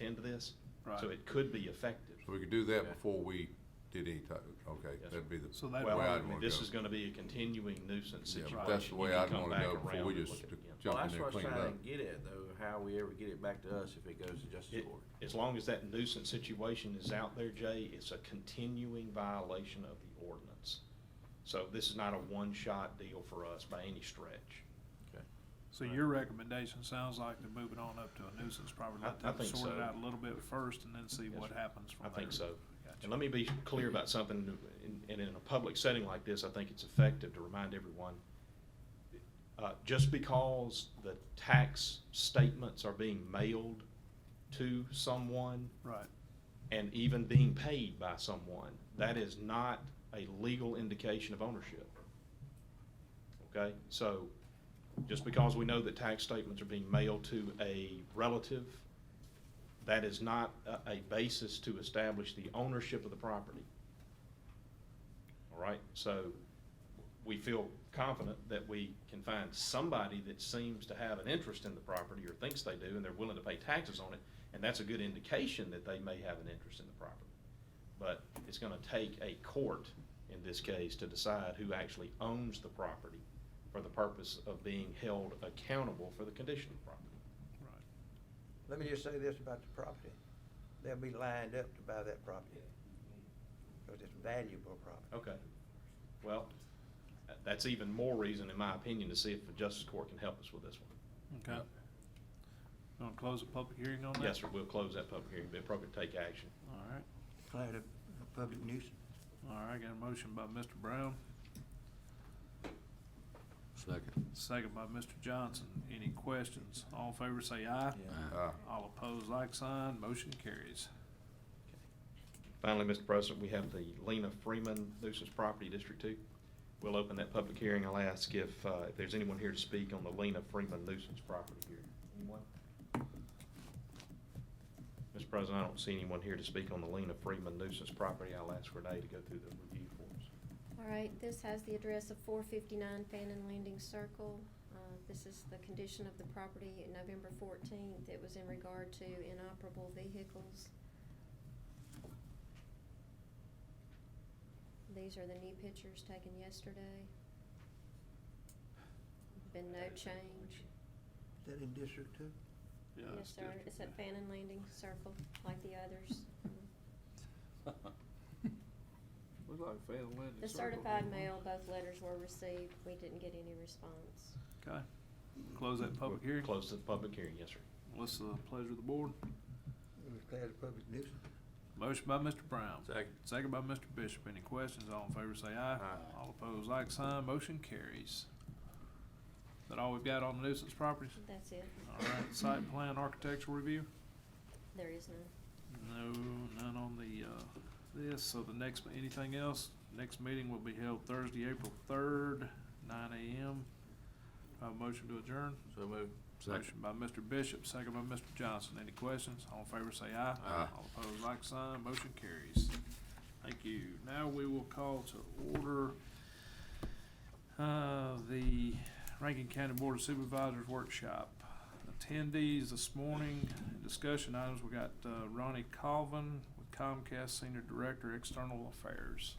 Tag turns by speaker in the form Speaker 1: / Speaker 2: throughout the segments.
Speaker 1: into this. So
Speaker 2: Right.
Speaker 1: it could be effective.
Speaker 3: So we could do that
Speaker 1: Okay.
Speaker 3: before we did any type, okay,
Speaker 1: Yes, sir.
Speaker 3: that'd be the.
Speaker 2: So that-
Speaker 3: way
Speaker 1: Well,
Speaker 2: where
Speaker 1: I
Speaker 3: I'd
Speaker 2: I'd
Speaker 1: mean,
Speaker 3: wanna
Speaker 1: this
Speaker 3: go.
Speaker 1: is gonna be a continuing nuisance
Speaker 3: Yeah,
Speaker 1: situation.
Speaker 3: but that's the way
Speaker 1: You
Speaker 3: I'd
Speaker 1: come
Speaker 3: wanna
Speaker 1: back
Speaker 3: go before
Speaker 1: around
Speaker 3: we
Speaker 1: and
Speaker 3: just
Speaker 1: look at it again.
Speaker 3: jump
Speaker 4: Well,
Speaker 3: in
Speaker 4: that's
Speaker 3: there
Speaker 4: what
Speaker 3: and
Speaker 4: I'm
Speaker 3: clean it
Speaker 4: trying
Speaker 3: up.
Speaker 4: to get at though, how we ever get it back to us if it goes to justice
Speaker 1: It-
Speaker 4: court.
Speaker 1: As long as that nuisance situation is out there, Jay, it's a continuing violation of the ordinance. So this is not a one-shot deal for us by any stretch.
Speaker 2: So your recommendation sounds like to move it on up to a nuisance, probably
Speaker 1: I-
Speaker 2: let
Speaker 1: I
Speaker 2: them
Speaker 1: think
Speaker 2: sort it
Speaker 1: so.
Speaker 2: out a little bit first and then see
Speaker 1: Yes,
Speaker 2: what
Speaker 1: sir.
Speaker 2: happens from
Speaker 1: I
Speaker 2: there.
Speaker 1: think so.
Speaker 2: Gotcha.
Speaker 1: And let me be clear about something, in- and in a public setting like this, I think it's effective to remind everyone. uh, Just because the tax statements are being mailed to someone
Speaker 2: Right,
Speaker 1: and even being paid by someone, that is not a legal indication of ownership. Okay, so just because we know that tax statements are being mailed to a relative, that is not a, a basis to establish the ownership of the property. All right, so we feel confident that we can find somebody that seems to have an interest in the property or thinks they do, and they're willing to pay taxes on it, and that's a good indication that they may have an interest in the property. But it's gonna take a court in this case to decide who actually owns the property for the purpose of being held accountable for the condition of the property.
Speaker 2: right.
Speaker 5: Let me just say this about the property. They'll be lined up to buy that property. Because it's valuable property.
Speaker 1: Okay, well, tha- that's even more reason, in my opinion, to see if the justice court can help us with this one.
Speaker 2: Okay. You want to close the public hearing on that?
Speaker 1: Yes, sir, we'll close that public hearing, be appropriate to take action.
Speaker 2: All right,
Speaker 5: Declared a, a public nuisance.
Speaker 2: all right, got a motion by Mr. Brown,
Speaker 3: Second.
Speaker 2: second by Mr. Johnson. Any questions? All in favor say aye.
Speaker 3: Uh,
Speaker 2: All opposed, like sign, motion carries.
Speaker 1: Finally, Mr. President, we have the Lena Freeman nuisance property, District Two. We'll open that public hearing. I'll ask if, uh, if there's anyone here to speak on the Lena Freeman nuisance property here. Anyone? Mr. President, I don't see anyone here to speak on the Lena Freeman nuisance property. I'll ask Renee to go through the review for us.
Speaker 6: All right, this has the address of four fifty-nine Fannin Landing Circle. Uh, This is the condition of the property, November fourteenth, it was in regard to inoperable vehicles. These are the new pictures taken yesterday. Been no change.
Speaker 5: Is that in District Two?
Speaker 2: Yeah,
Speaker 6: Yes,
Speaker 2: it's
Speaker 6: sir,
Speaker 2: district
Speaker 6: it's at
Speaker 2: two.
Speaker 6: Fannin Landing Circle, like the others.
Speaker 4: Looks like failed landing.
Speaker 6: The certified mail, both letters were received, we didn't get any response.
Speaker 2: Okay, close that public hearing.
Speaker 1: Close the public hearing, yes, sir.
Speaker 2: What's the pleasure of the board?
Speaker 5: It was declared a public nuisance.
Speaker 2: Motion by Mr. Brown.
Speaker 4: Second.
Speaker 2: Second by Mr. Bishop. Any questions? All in favor say aye.
Speaker 4: Aye.
Speaker 2: All opposed, like sign. Motion carries. Is that all we've got on nuisance properties?
Speaker 6: That's it,
Speaker 2: All right, site plan architectural review?
Speaker 6: there is none.
Speaker 2: No, none on the, uh, this. So the next, anything else? Next meeting will be held Thursday, April third, nine AM. Have a motion to adjourn?
Speaker 4: So moved.
Speaker 2: Motion by Mr. Bishop, second by Mr. Johnson. Any questions? All in favor say aye.
Speaker 3: Aye.
Speaker 2: All opposed, like sign. Motion carries. Thank you. Now we will call to order, uh, the Rankin County Board of Supervisors Workshop. Attendees this morning, discussion items, we got, uh, Ronnie Colvin with Comcast Senior Director, External Affairs.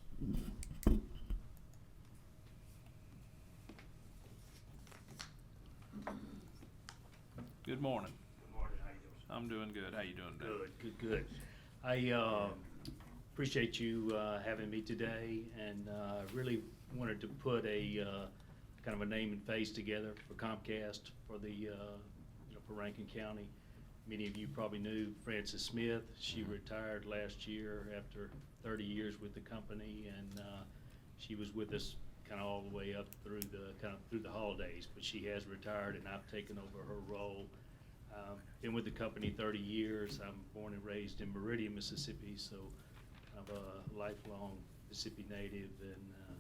Speaker 2: Good morning. Good morning. How you doing? I'm doing good. How you doing today?
Speaker 7: Good, good, good. I um, appreciate you uh, having me today, and uh, really wanted to put a, uh, kind of a name and face together for Comcast, for the, uh, you know, for Rankin County. Many of you probably knew Frances Smith. She retired last year after 30 years with the company, and uh, she was with us kind of all the way up through the, kind of through the holidays, but she has retired, and I've taken over her role. Um, Been with the company 30 years. I'm born and raised in Meridian, Mississippi, so I'm a lifelong Mississippi native, and, uh,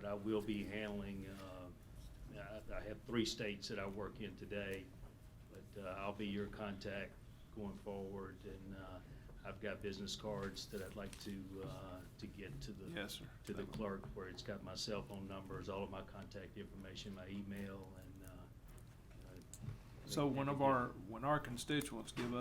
Speaker 7: but I will be handling, uh, I I have three states that I work in today, but uh, I'll be your contact going forward, and uh, I've got business cards that I'd like to, uh, to get to the
Speaker 2: Yes, sir.
Speaker 7: to the clerk where it's got my cell phone numbers, all of my contact information, my email, and, uh. uh,
Speaker 2: So one of our, when our constituents give us.